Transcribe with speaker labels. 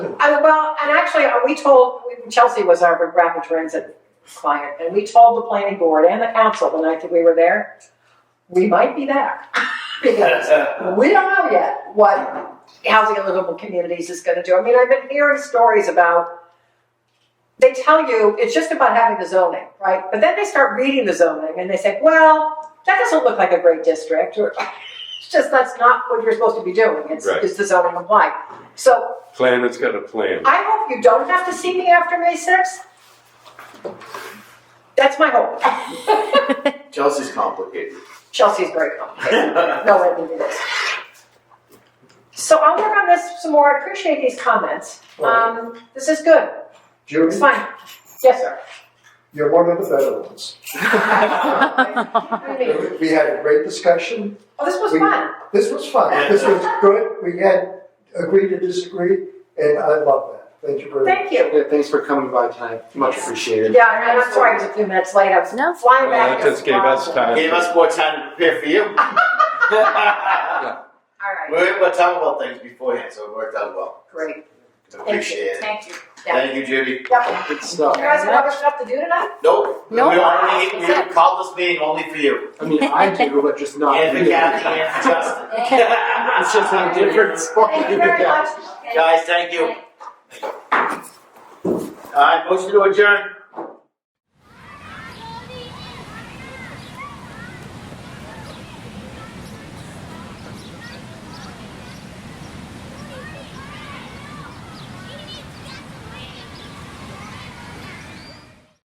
Speaker 1: Well, and actually, uh, we told, we- Chelsea was our rapid transit client, and we told the planning board and the council the night that we were there, we might be there. Because we don't know yet what Housing and Livable Communities is gonna do. I mean, I've been hearing stories about, they tell you, it's just about having the zoning, right? But then they start reading the zoning and they say, well, that doesn't look like a great district, or, it's just, that's not what you're supposed to be doing, it's,
Speaker 2: Right.
Speaker 1: is the zoning applied? So
Speaker 2: Plan that's got a plan.
Speaker 1: I hope you don't have to see me after May sixth. That's my hope.
Speaker 3: Chelsea's complicated.
Speaker 1: Chelsea's very complicated. No way to do this. So I'll work on this some more. I appreciate these comments. Um, this is good. It's
Speaker 4: Judy,
Speaker 1: fine. Yes, sir.
Speaker 4: you're one of the better ones.
Speaker 1: What do you mean?
Speaker 4: We had a great discussion.
Speaker 1: Oh, this was
Speaker 4: We-
Speaker 1: fun.
Speaker 4: This was fun. This was good. We had agree to disagree, and I love that. Thank you very much.
Speaker 1: Thank you.
Speaker 3: Yeah, thanks for coming by tonight. Much appreciated.
Speaker 1: Yeah, and I'm sorry I was a few minutes late. I was
Speaker 5: No.
Speaker 1: flying
Speaker 2: Well,
Speaker 1: back.
Speaker 2: that just gave us time.
Speaker 6: Gave us more time to prepare for you.
Speaker 1: All right,
Speaker 6: we were able to talk about things beforehand, so it worked out well.
Speaker 1: great.
Speaker 6: Appreciate it.
Speaker 7: Thank you.
Speaker 1: Yeah.
Speaker 6: Thank you, Judy.
Speaker 1: Yep.
Speaker 3: Good
Speaker 1: You
Speaker 3: stuff.
Speaker 1: guys have other stuff to do tonight?
Speaker 6: Nope.
Speaker 5: Nope.
Speaker 6: We only we called this meeting only for you.
Speaker 3: I mean, I do, but just not.
Speaker 6: and for
Speaker 3: you.
Speaker 6: Kathy and for Justin.
Speaker 3: It's just a different spot.
Speaker 1: Thank you very
Speaker 3: Yeah.
Speaker 1: much.
Speaker 6: Guys, thank you. All right, motion to adjourn.